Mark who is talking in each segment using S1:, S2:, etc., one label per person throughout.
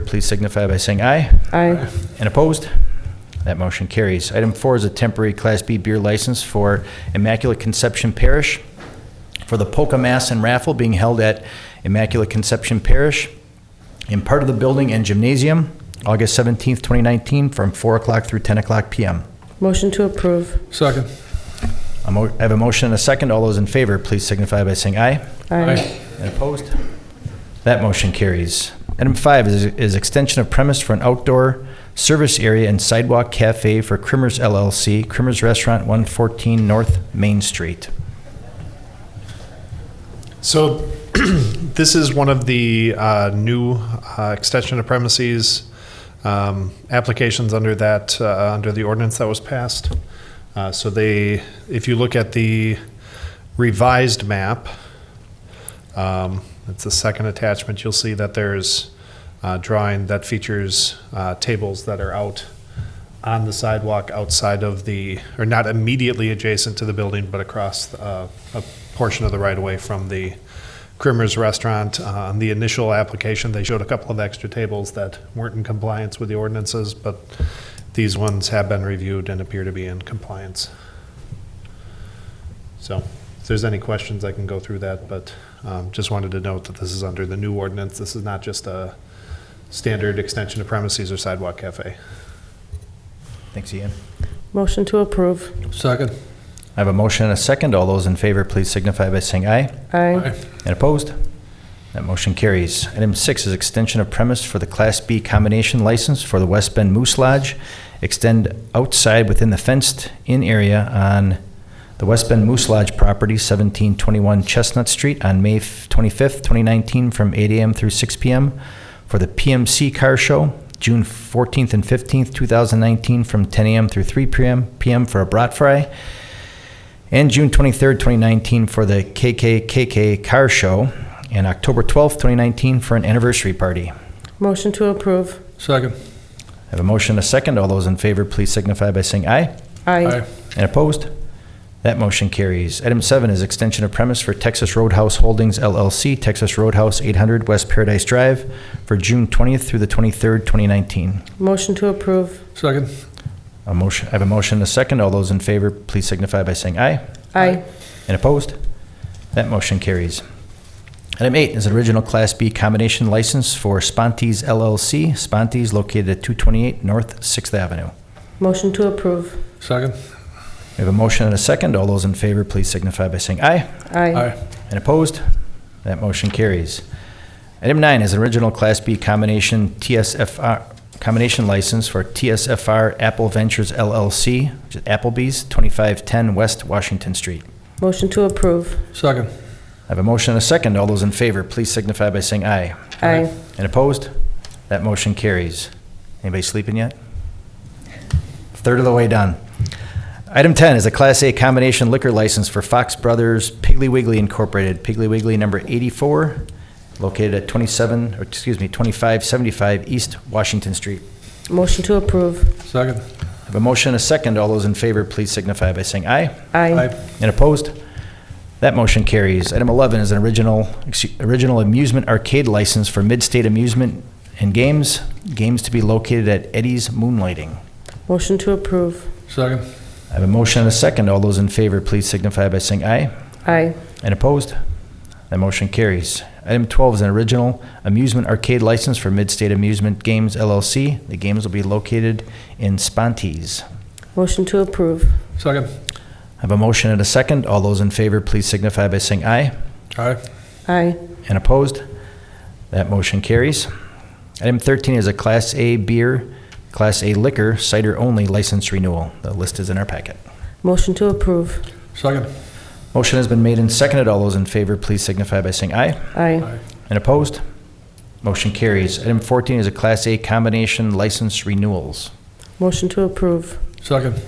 S1: please signify by saying aye.
S2: Aye.
S1: And opposed? That motion carries. Item four is a temporary Class B beer license for Immaculate Conception Parish for the Polka Mass and Raffle being held at Immaculate Conception Parish in part of the building and gymnasium, August 17th, 2019, from 4 o'clock through 10 o'clock PM.
S2: Motion to approve.
S3: Second.
S1: A mo- I have a motion and a second. All those in favor, please signify by saying aye.
S2: Aye.
S1: And opposed? That motion carries. Item five is, is extension of premise for an outdoor service area and sidewalk cafe for Crimmers LLC, Crimmers Restaurant, 114 North Main Street.
S4: So this is one of the uh, new uh, extension of premises um, applications under that, uh, under the ordinance that was passed. Uh, So they, if you look at the revised map, um, it's the second attachment, you'll see that there's a drawing that features uh, tables that are out on the sidewalk outside of the, or not immediately adjacent to the building, but across uh, a portion of the right-of-way from the Crimmers Restaurant. Uh, On the initial application, they showed a couple of extra tables that weren't in compliance with the ordinances, but these ones have been reviewed and appear to be in compliance. So if there's any questions, I can go through that, but um, just wanted to note that this is under the new ordinance. This is not just a standard extension of premises or sidewalk cafe.
S1: Thanks, Ian.
S2: Motion to approve.
S3: Second.
S1: I have a motion and a second. All those in favor, please signify by saying aye.
S2: Aye.
S1: And opposed? That motion carries. Item six is extension of premise for the Class B combination license for the West Bend Moose Lodge. Extend outside within the fenced-in area on the West Bend Moose Lodge property, 1721 Chestnut Street, on May f- 25th, 2019, from 8 AM through 6 PM for the PMC Car Show, June 14th and 15th, 2019, from 10 AM through 3 PM PM for a brat fry, and June 23rd, 2019 for the KKKK Car Show, and October 12th, 2019 for an anniversary party.
S2: Motion to approve.
S3: Second.
S1: I have a motion, and a second. All those in favor, please signify by saying aye.
S2: Aye.
S1: And opposed? That motion carries. Item seven is extension of premise for Texas Roadhouse Holdings LLC, Texas Roadhouse 800 West Paradise Drive, for June 20th through the 23rd, 2019.
S2: Motion to approve.
S3: Second.
S1: A motion, I have a motion, and a second. All those in favor, please signify by saying aye.
S2: Aye.
S1: And opposed? That motion carries. Item eight is an original Class B combination license for Sponte's LLC, Sponte's located at 228 North Sixth Avenue.
S2: Motion to approve.
S3: Second.
S1: We have a motion and a second. All those in favor, please signify by saying aye.
S2: Aye.
S1: And opposed? That motion carries. Item nine is an original Class B combination TSFR, combination license for TSFR Apple Ventures LLC, which is Applebee's, 2510 West Washington Street.
S2: Motion to approve.
S3: Second.
S1: I have a motion and a second. All those in favor, please signify by saying aye.
S2: Aye.
S1: And opposed? That motion carries. Anybody sleeping yet? Third of the way done. Item 10 is a Class A combination liquor license for Fox Brothers Piggly Wiggly Incorporated, Piggly Wiggly number 84, located at 27, or excuse me, 2575 East Washington Street.
S2: Motion to approve.
S3: Second.
S1: I have a motion and a second. All those in favor, please signify by saying aye.
S2: Aye.
S1: And opposed? That motion carries. Item 11 is an original, excu- original amusement arcade license for Midstate Amusement and Games, games to be located at Eddie's Moonlighting.
S2: Motion to approve.
S3: Second.
S1: I have a motion and a second. All those in favor, please signify by saying aye.
S2: Aye.
S1: And opposed? That motion carries. Item 12 is an original amusement arcade license for Midstate Amusement Games LLC. The games will be located in Spontees.
S2: Motion to approve.
S3: Second.
S1: I have a motion and a second. All those in favor, please signify by saying aye.
S3: Aye.
S2: Aye.
S1: And opposed? That motion carries. Item 13 is a Class A beer, Class A liquor, cider-only license renewal. The list is in our packet.
S2: Motion to approve.
S3: Second.
S1: Motion has been made and seconded. All those in favor, please signify by saying aye.
S2: Aye.
S1: And opposed? Motion carries. Item 14 is a Class A combination license renewals.
S2: Motion to approve.
S3: Second.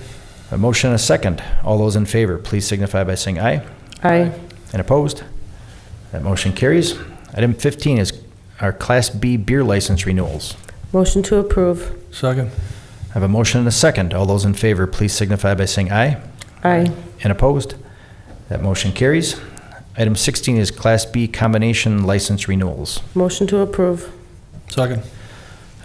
S1: A motion and a second. All those in favor, please signify by saying aye.
S2: Aye.
S1: And opposed? That motion carries. Item 15 is our Class B beer license renewals.
S2: Motion to approve.
S3: Second.
S1: I have a motion and a second. All those in favor, please signify by saying aye.
S2: Aye.
S1: And opposed? That motion carries. Item 16 is Class B Combination License Renewals.
S2: Motion to approve.
S3: Second.